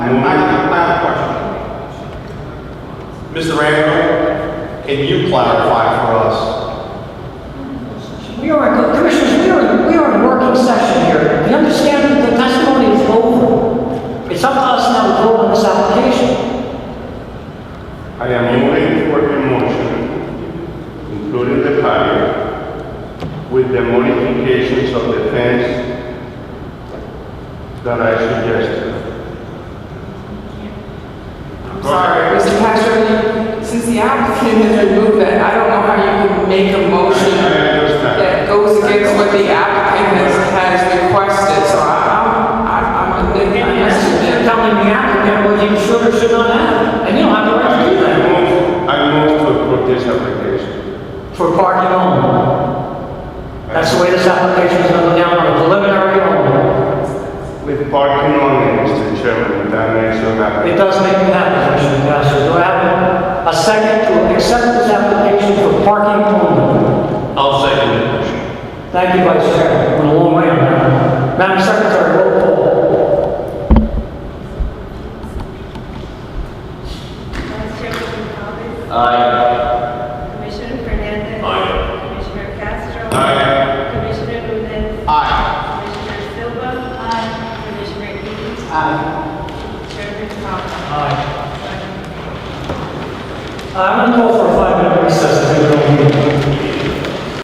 I have, I have a question. Mr. Randall, can you clarify for us? We are, in- Commissioners, we are, we are in working session here. We understand that the testimony is over. It's up to us now to vote on this application. I am moving for a motion, including the patio, with the modifications of the fence that I suggested. I'm sorry, Mr. Patrick, since the applicant has removed that, I don't know how you can make a motion I understand. that goes against what the applicant has, has requested, so I, I'm, I'm a bit, And I'm that's just a you're telling the applicant what you should or should not have. And you don't have the right to do I that. move, I move to approve this application. For parking only. That's the way this application is going down on a preliminary only. With parking only, Mr. Chairman, that makes an It application. does make me happy, Commissioner Gasser. Do I have a second to accept this application for parking only? I'll second the motion. Thank you, Vice Chair. Went a long way on that. Madam Secretary, roll call. Vice Chairman Thomas. Aye. Commissioner Fernandez. Aye. Commissioner Castro. Aye. Commissioner Lutz. Aye. Commissioner Silva. Aye. Commissioner Heath. Chairman Thomas. Aye. I'm going to call for a five-minute recess. if you don't mind.